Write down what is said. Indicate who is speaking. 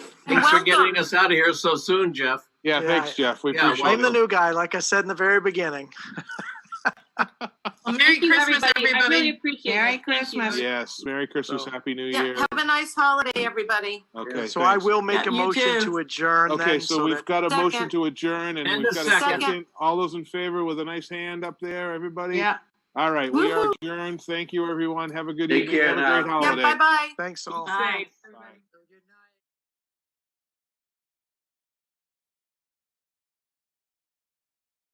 Speaker 1: Thanks for
Speaker 2: Welcome.
Speaker 1: getting us out of here so soon, Jeff.
Speaker 3: Yeah,
Speaker 2: Yeah,
Speaker 3: thanks,
Speaker 2: I-
Speaker 3: Jeff. We
Speaker 1: Yeah,
Speaker 3: appreciate it.
Speaker 1: why
Speaker 2: I'm the new guy, like I said in the very beginning.
Speaker 4: Well,
Speaker 5: Merry
Speaker 4: thank you,
Speaker 5: Christmas,
Speaker 4: I really
Speaker 5: everybody.
Speaker 4: appreciate
Speaker 5: Merry
Speaker 4: it. Thank you.
Speaker 5: Christmas.
Speaker 3: Yes, Merry Christmas,
Speaker 1: So-
Speaker 3: Happy New
Speaker 5: Yeah,
Speaker 3: Year.
Speaker 5: have a nice holiday, everybody.
Speaker 3: Okay,
Speaker 2: So I
Speaker 3: thanks.
Speaker 2: will make
Speaker 5: Yeah,
Speaker 2: a
Speaker 5: you
Speaker 2: motion
Speaker 5: too.
Speaker 2: to adjourn
Speaker 3: Okay,
Speaker 2: then,
Speaker 3: so
Speaker 2: so
Speaker 3: we've
Speaker 2: that,
Speaker 3: got a motion
Speaker 5: Second.
Speaker 3: to adjourn and
Speaker 1: And
Speaker 3: we've
Speaker 1: a
Speaker 3: got a
Speaker 1: second.
Speaker 3: second. All those in favor with a nice hand up there, everybody?
Speaker 5: Yeah.
Speaker 3: All right, we are
Speaker 5: Woo-hoo.
Speaker 3: adjourned. Thank you, everyone. Have a good
Speaker 1: Take
Speaker 3: evening.
Speaker 1: care
Speaker 3: Have a
Speaker 1: now.
Speaker 3: great
Speaker 5: Yeah,
Speaker 3: holiday.
Speaker 5: bye-bye.
Speaker 2: thanks all.
Speaker 5: Bye.